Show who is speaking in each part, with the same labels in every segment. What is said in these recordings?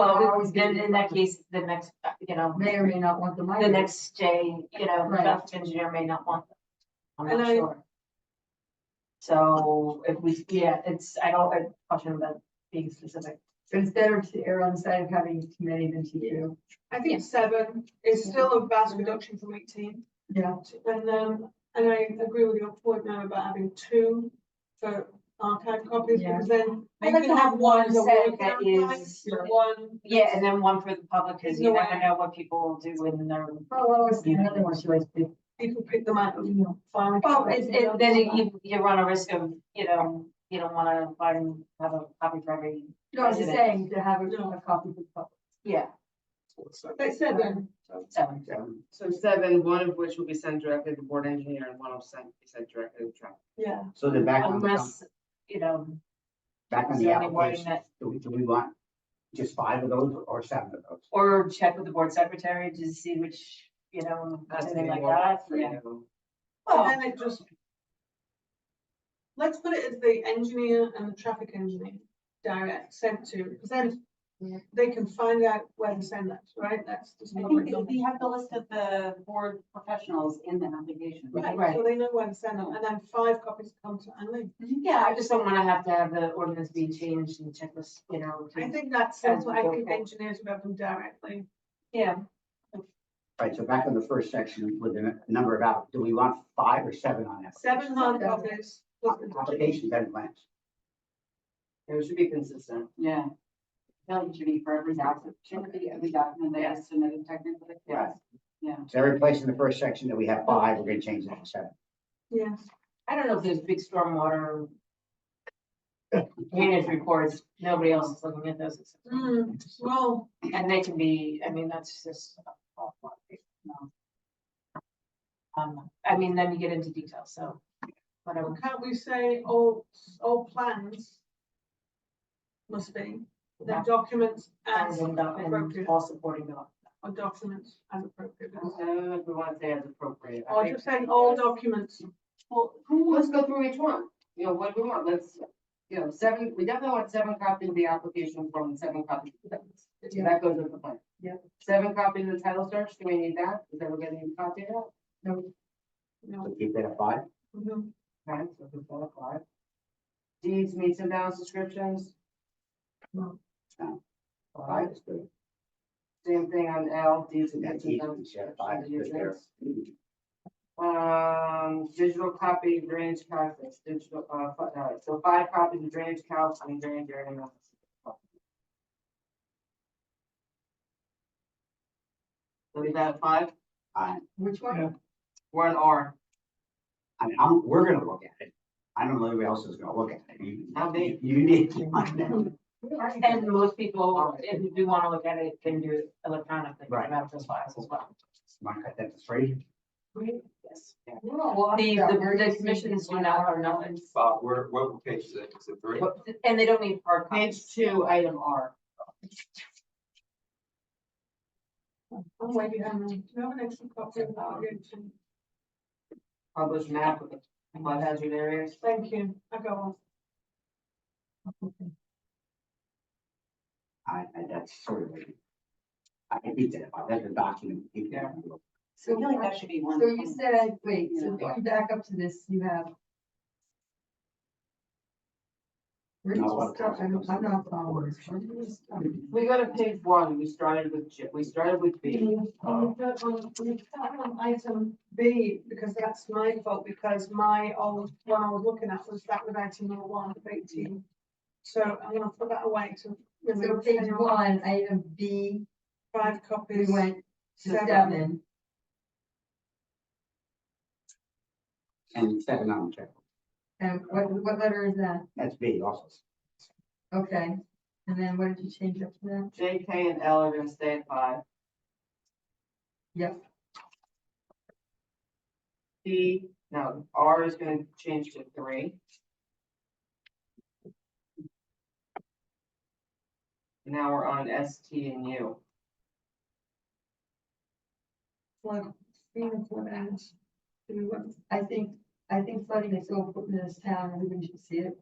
Speaker 1: Well, then in that case, the next, uh, you know,
Speaker 2: May or may not want the money.
Speaker 1: the next day, you know, the
Speaker 2: Right.
Speaker 1: traffic engineer may not want them. I'm
Speaker 3: And
Speaker 1: not
Speaker 3: I-
Speaker 1: sure. So if we, yeah, it's, I don't, I question about being specific.
Speaker 2: So it's better to err on the side of having too many than too few.
Speaker 3: I think seven is still a vast reduction from eighteen.
Speaker 2: Yeah.
Speaker 3: And then, and I agree with your point now about having two for archive copies,
Speaker 2: Yeah.
Speaker 3: because then.
Speaker 1: I'd like
Speaker 3: you can
Speaker 1: to have one
Speaker 3: as a
Speaker 1: set
Speaker 3: word
Speaker 1: that
Speaker 3: count,
Speaker 1: is-
Speaker 3: like, One.
Speaker 1: Yeah, and then one for the public, because you
Speaker 3: No
Speaker 1: never
Speaker 3: way.
Speaker 1: know what people will do when they're.
Speaker 2: Oh, well, it's another one she likes to do.
Speaker 3: People pick them out and
Speaker 2: You
Speaker 3: find.
Speaker 1: Well, it's, it, then you, you run a risk of, you know, you don't wanna find, have a copy for every,
Speaker 2: know, I was just saying to have a a copy of the book.
Speaker 1: yeah,
Speaker 3: That's seven.
Speaker 1: seven.
Speaker 4: So seven, one of which will be sent directly to the board engineer and one will send, be sent directly to traffic.
Speaker 3: Yeah.
Speaker 5: So then back on,
Speaker 1: Unless, you know,
Speaker 5: back on
Speaker 1: so
Speaker 5: the
Speaker 1: any wording
Speaker 5: application,
Speaker 1: that-
Speaker 5: do we, do we want just five of those or seven of those?
Speaker 1: or check with the board secretary to see which, you know,
Speaker 4: Has to
Speaker 1: something
Speaker 4: be
Speaker 1: like
Speaker 4: more
Speaker 1: that,
Speaker 4: than
Speaker 1: yeah.
Speaker 4: three of them.
Speaker 6: Oh.
Speaker 3: And then it just. Let's put it as the engineer and the traffic engineer direct sent to, because then
Speaker 1: Yeah.
Speaker 3: they can find out where to send that, right? That's just.
Speaker 6: I
Speaker 3: public
Speaker 6: think they-
Speaker 3: domain.
Speaker 6: they have the list of the board professionals in the application.
Speaker 3: Right,
Speaker 1: Right.
Speaker 3: so they know where to send them, and then five copies come to Anlene.
Speaker 1: Yeah, I just don't wanna have to have the ordinance be changed and checklist, you know,
Speaker 3: I
Speaker 1: to-
Speaker 3: think that's,
Speaker 1: As
Speaker 3: what I
Speaker 1: we go
Speaker 3: think
Speaker 1: forward.
Speaker 3: engineers would have them directly.
Speaker 1: yeah.
Speaker 5: Right, so back on the first section with the number of app, do we want five or seven on
Speaker 3: Seven hard
Speaker 2: Yeah.
Speaker 3: copies. plus the
Speaker 5: applications? Applications and plans.
Speaker 4: It should be consistent.
Speaker 6: Yeah. Really should be for every document, shouldn't it be every document that is submitted technically.
Speaker 5: Right.
Speaker 6: Yeah.
Speaker 5: So every place in the first section that we have five, we're gonna change that to seven.
Speaker 3: Yes,
Speaker 1: I don't know if there's big stormwater. Drainage reports, nobody else is looking at those, except-
Speaker 3: Mm, well,
Speaker 1: and they can be, I mean, that's just. awful, you know. Um, I mean, then you get into detail, so, whatever,
Speaker 3: can't we say all, all plans must be, the
Speaker 1: Yeah.
Speaker 3: documents as
Speaker 1: and, uh,
Speaker 3: appropriate,
Speaker 1: and all supporting them.
Speaker 3: or documents as appropriate.
Speaker 4: So if Uh, we want to say as appropriate. I
Speaker 3: Or
Speaker 4: think-
Speaker 3: just saying all documents,
Speaker 6: Well, who
Speaker 4: Let's
Speaker 6: was,
Speaker 4: go through each one. You know, what do we want? Let's, you know, seven, we definitely want seven copies of the application form, and seven copies. of the plans.
Speaker 2: Yeah.
Speaker 4: That goes with the plan.
Speaker 2: Yeah.
Speaker 4: Seven copies of the title search. Do we need that? Is everybody need a copy of that?
Speaker 3: you know,
Speaker 5: So keep that at five.
Speaker 3: mhm.
Speaker 4: Right, so we can apply. Deeds, meets and bounds descriptions,
Speaker 5: Five is good.
Speaker 4: same thing on L, deeds and
Speaker 5: Yeah,
Speaker 4: meets and
Speaker 5: deeds,
Speaker 4: bounds.
Speaker 5: yeah, five is good there.
Speaker 4: descriptions. Um, digital copy drainage calculus, digital, uh, fi- uh, so five copies of drainage calc and drainage area. maps. So we got five,
Speaker 5: I,
Speaker 2: Which one?
Speaker 4: we're an R,
Speaker 5: I mean, I'm, we're gonna look at it. I don't know who else is gonna look at it. You-
Speaker 4: How big?
Speaker 5: You need to find out.
Speaker 1: And most people, if you do wanna look at it, can do it electronically,
Speaker 5: Right.
Speaker 1: not just files as well.
Speaker 5: Want to cut that to three?
Speaker 1: Yes. The,
Speaker 2: The,
Speaker 1: the, the commissions do not have knowledge,
Speaker 7: Bob, where, what page is it? Is it three?
Speaker 1: and they don't need hard copies.
Speaker 4: page two, item R.
Speaker 3: Oh, wait, you have, do you have an extra copy of that? again?
Speaker 4: Published map of the flood hazard areas.
Speaker 3: Thank you, I got one.
Speaker 5: I, I, that's sort of. like- I can keep that at five. That's a document. keep that.
Speaker 6: I feel like that should be one.
Speaker 2: So you said, wait, so
Speaker 6: Yeah.
Speaker 2: going back up to this, you have. Where's
Speaker 5: Not a lot
Speaker 2: the
Speaker 5: of
Speaker 2: stuff? I'm
Speaker 5: times.
Speaker 2: I'm not following. Where did this stuff-
Speaker 4: We go to page one, we started with, J- we started with B.
Speaker 3: Um, but on- we start on Item B, because that's my fault, because my old, one I was looking at was that with item number one of eighteen. So I'm gonna put that away to.
Speaker 2: So
Speaker 3: remove
Speaker 2: page
Speaker 3: anyone.
Speaker 2: one, item B,
Speaker 3: Five
Speaker 2: we
Speaker 3: copies.
Speaker 2: went to
Speaker 3: Seven.
Speaker 2: seven.
Speaker 5: And seven on check.
Speaker 2: And what, what letter is that?
Speaker 5: That's B also.
Speaker 2: Okay. And then what did you change up to that?
Speaker 4: J, K, and L are gonna stay at five.
Speaker 2: Yep.
Speaker 4: P, no, R is gonna change to three. Now we're on S, T, and U.
Speaker 3: One, three, four, and two, one.
Speaker 2: I think, I think flooding is so important in this town, everybody should see it.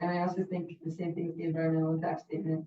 Speaker 2: And I also think the same thing with the environmental impact statement.